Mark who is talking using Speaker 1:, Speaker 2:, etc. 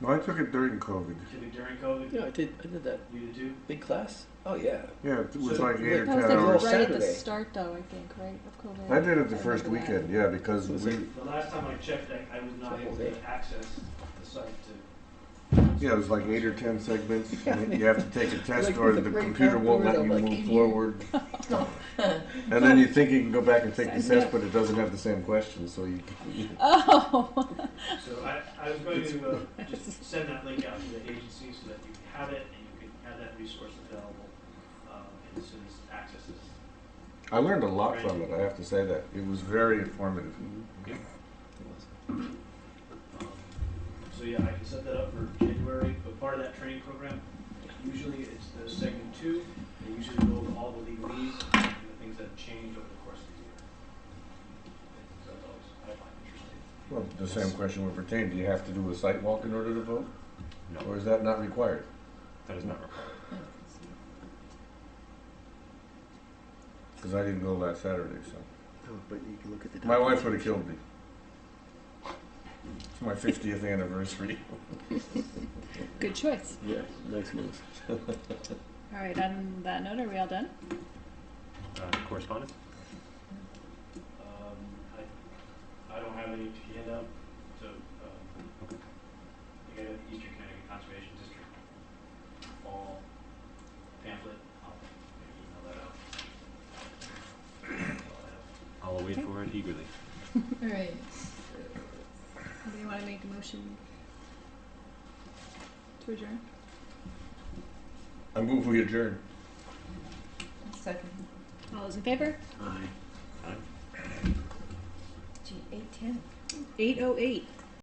Speaker 1: No, I took it during COVID.
Speaker 2: Took it during COVID?
Speaker 3: Yeah, I did. I did that
Speaker 2: You did too?
Speaker 3: big class. Oh yeah.
Speaker 1: Yeah, it was
Speaker 3: So,
Speaker 1: like eight or
Speaker 3: yeah,
Speaker 1: ten
Speaker 4: That was like
Speaker 3: Little
Speaker 4: right
Speaker 1: hours.
Speaker 4: at the
Speaker 3: Saturday.
Speaker 4: start, though. I think right of COVID.
Speaker 1: I did it the
Speaker 4: I
Speaker 1: first
Speaker 4: remember that.
Speaker 1: weekend, yeah, because
Speaker 3: It was
Speaker 1: we,
Speaker 3: like-
Speaker 2: The last time I checked, I, I was not
Speaker 3: It's a
Speaker 2: able
Speaker 3: whole
Speaker 2: to
Speaker 3: day.
Speaker 2: access the site to.
Speaker 1: yeah, it was like eight or ten segments.
Speaker 3: Yeah,
Speaker 1: and
Speaker 3: I
Speaker 1: You have to take a test
Speaker 3: like
Speaker 1: or
Speaker 3: with a
Speaker 1: the
Speaker 3: great
Speaker 1: computer won't let you
Speaker 3: algorithm, like,
Speaker 1: move
Speaker 3: in here.
Speaker 1: forward. And then you think you can go back and take the
Speaker 4: Yeah.
Speaker 1: test, but it doesn't have the same questions, so you,
Speaker 4: Oh,
Speaker 2: So I, I was going to uh, just send that link out to the agency so that you have it and you can have that resource available um, and as soon as access is.
Speaker 1: I learned a lot from it, I have to say that. It was very informative.
Speaker 3: Oh,
Speaker 2: Um, So yeah, I can set that up for January, but part of that training program, usually it's the segment two. They usually go over all the legalese and the things that have changed over the course of the year. So that's always, I find interesting.
Speaker 1: Well, the same question would pertain, do you have to do a site walk in order to vote? Or is that not required?
Speaker 5: That is not required.
Speaker 1: Because I didn't go last Saturday, so.
Speaker 3: Oh, but you can look at the.
Speaker 1: My wife would have killed me. It's my 50th anniversary.
Speaker 4: good choice.
Speaker 3: Yeah, nice move.
Speaker 4: All right. On that note, are we all done?
Speaker 5: Uh, correspondence?
Speaker 2: Um, I, I don't have any to hand out, so, um, I got an Eastern Connecticut Conservation District fall pamphlet, I'll maybe email that out.
Speaker 5: I'll wait for it eagerly.
Speaker 4: All right. Do you want to make a motion to adjourn?
Speaker 1: I move we adjourn.
Speaker 6: Second.
Speaker 4: All those in favor?
Speaker 5: Aye.
Speaker 6: Gee, eight ten.
Speaker 4: Eight oh eight.